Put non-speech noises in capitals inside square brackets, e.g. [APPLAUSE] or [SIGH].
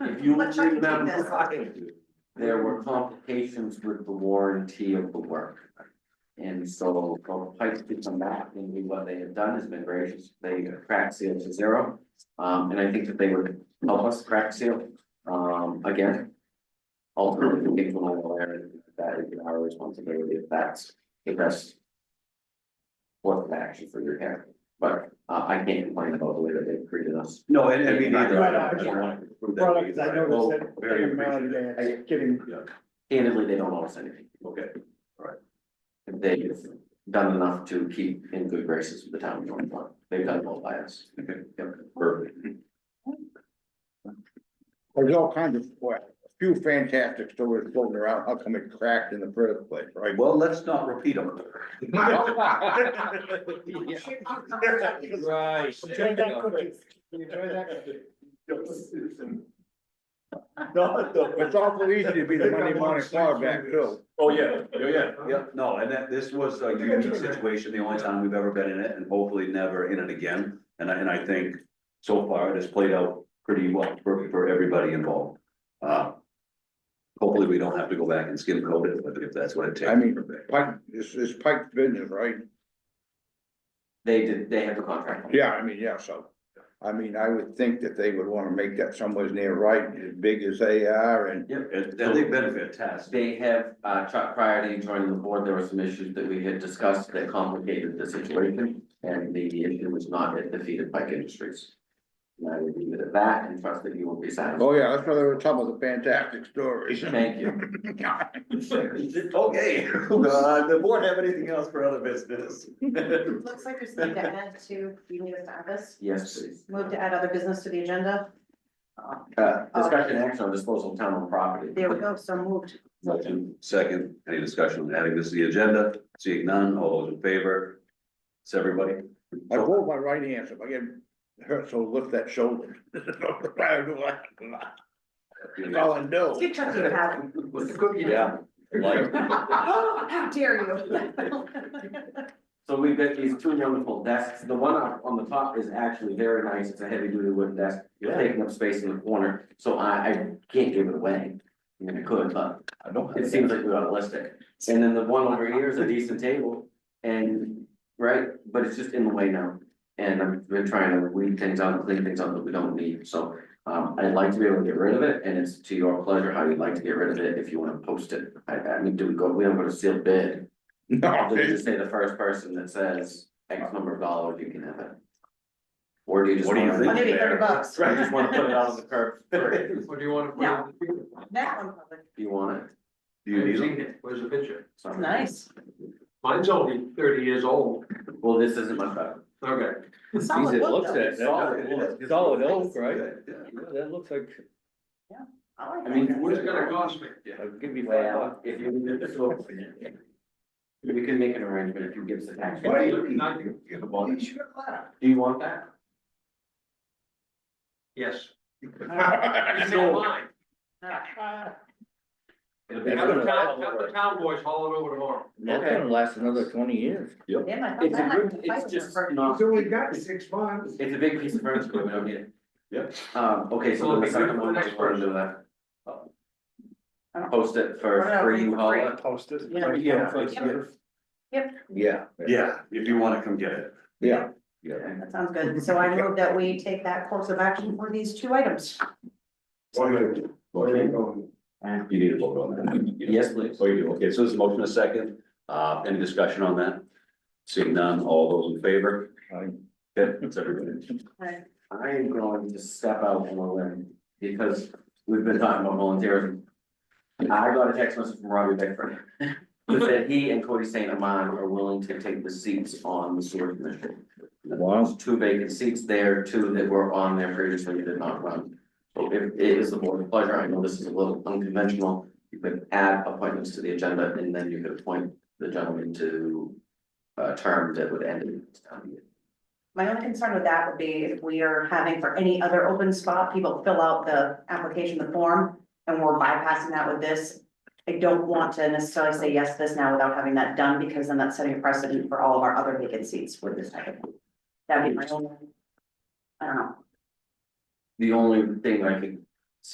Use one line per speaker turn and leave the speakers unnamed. If you
Let's try to keep
remember,
this.
right, there were complications with the warranty of the work. And so Golden Pike did some back and we- what they had done has been gracious, they cracked seal to zero. Um, and I think that they would help us crack seal, um, again. Ultimately, we can all aware that is our responsibility, if that's the best. What the action for your hair, but uh, I can't complain about the way that they've treated us.
No, and and me neither, I
Right,
don't, I
yeah.
don't want to prove that.
Well,
to you,
because I
but
noticed
will
that
Very
every now and
appreciate
again,
it.
it's getting,
Candidly, they don't owe us anything.
Okay,
they've done enough to keep in good graces with the town of North Lawn. They've done well by us.
Okay.
Yep.
perfect.
there's all kinds of, well, a few fantastic stories floating around, how come it cracked in the first place,
[LAUGHS]
right? [LAUGHS]
Well, let's not repeat them.
Right. Enjoy that cookie. Enjoy that cookie. It's awful easy to be the Monday morning quarterback too.
Oh, yeah, yeah, yeah, yeah, no, and that, this was a unique situation, the only time we've ever been in it, and hopefully never in it again. And I, and I think so far it has played out pretty well for, for everybody involved. Uh, Hopefully, we don't have to go back and skin coat it, but if that's what it takes.
I mean, Pike, it's, it's Pike's business, right?
They did, they have the contract.
Yeah, I mean, yeah, so, I mean, I would think that they would wanna make that somewhere near right, as big as they are and.
And and they've been fantastic.
They have, uh, Chuck prior to joining the board, there were some issues that we had discussed that complicated the situation. And the issue was not yet defeated by Industries. And I would leave it at that and trust that you will be satisfied.
Oh, yeah, that's why there were some of the fantastic stories. [LAUGHS]
Thank you.
[LAUGHS] Okay, [LAUGHS] uh, the board have anything else for other business? [LAUGHS]
It Looks like there's need to add to, you need us to add this,
Yes, please.
move to add other business to the agenda. Uh,
Uh, discussion action on disposal of town owned property.
There we go, so moved.
Motion second, any discussion on adding this to the agenda? Seeing none, all those in favor? It's everybody.
I hold my right hand, so if I get hurt, so lift that shoulder. [LAUGHS] That's all I
Let's
know.
get Chuck to have it.
Yeah. Like,
Oh, [LAUGHS] how dare you? [LAUGHS]
So we've got these two wonderful desks, the one up on the top is actually very nice, it's a heavy duty wooden desk, you're taking up space in the corner, so I, I can't give it away. I mean, I could, but
I don't
it seems like we ought to list it, and then the one over here is a decent table, and, right, but it's just in the way now. And I've been trying to weed things out, and clean things out that we don't need, so, um, I'd like to be able to get rid of it, and it's to your pleasure how you'd like to get rid of it, if you wanna post it. I, I mean, do we go, we don't go to seal bid,
No,
do you
it's-
just say the first person that says X number of dollars, you can have it? Or do you just?
What do you
wanna-
think?
Maybe thirty bucks.
I [LAUGHS] just
[LAUGHS]
wanna put it out on the curb, for-
What do you want to put?
Now,
on the picture?
That one, public.
do you want it?
Do you
I've
need
seen
them?
it. Where's the picture?
Sorry.
nice,
Mine's only thirty years old.
Well, this isn't much better.
Okay.
solid look though.
at,
Solid.
that, solid oak, right?
Yeah.
Yeah, That looks like,
I like
I mean,
that.
What's it gonna cost me?
I'll give you five bucks.
Well, if you leave it so. We can make an arrangement if you give us a tax.
Why are
Do
you looking at you? You have a bonus. [LAUGHS]
you want that?
Yes. It's not
No.
mine. Have
It's
the
gonna-
town, have the town boys haul it over tomorrow.
That's
Okay.
gonna last another twenty years.
Damn, I thought
It's a
that might
good,
be fight
it's
with
just
her.
not,
we got six months.
[LAUGHS] it's a big piece of furniture, but we don't need it.
Yep.
Um, okay, so then the second one, we're gonna do that. Post it for
Whatever,
free,
for
you haul
free.
it.
Posted.
Yeah.
Yeah.
Yeah,
Yeah, if you wanna come get it.
yeah,
Yeah.
That sounds good, so I move that we take that course of action for these two items.
Motion. You need a vote on that.
Yes, please.
Oh, you do, okay, so this is motion a second, uh, any discussion on that? Seeing none, all those in favor?
Aye.
Okay, that's everybody.
Right.
I am going to step out on a limb because we've been talking about volunteerism. I got a text message from Robbie Bickford who said he and Cody St. Amand are willing to take the seats on the sewer commission.
wow,
There's Two vacant seats there, two that were on there previously that did not run. So if it is the board's pleasure, I know this is a little unconventional, you could add appointments to the agenda and then you could appoint the gentleman to a term that would end in town meeting.
My only concern with that would be if we are having for any other open spot, people fill out the application, the form, and we're bypassing that with this. I don't want to necessarily say yes to this now without having that done, because then that's setting a precedent for all of our other vacant seats with this type of. That'd be my only. I don't know,
The only thing I could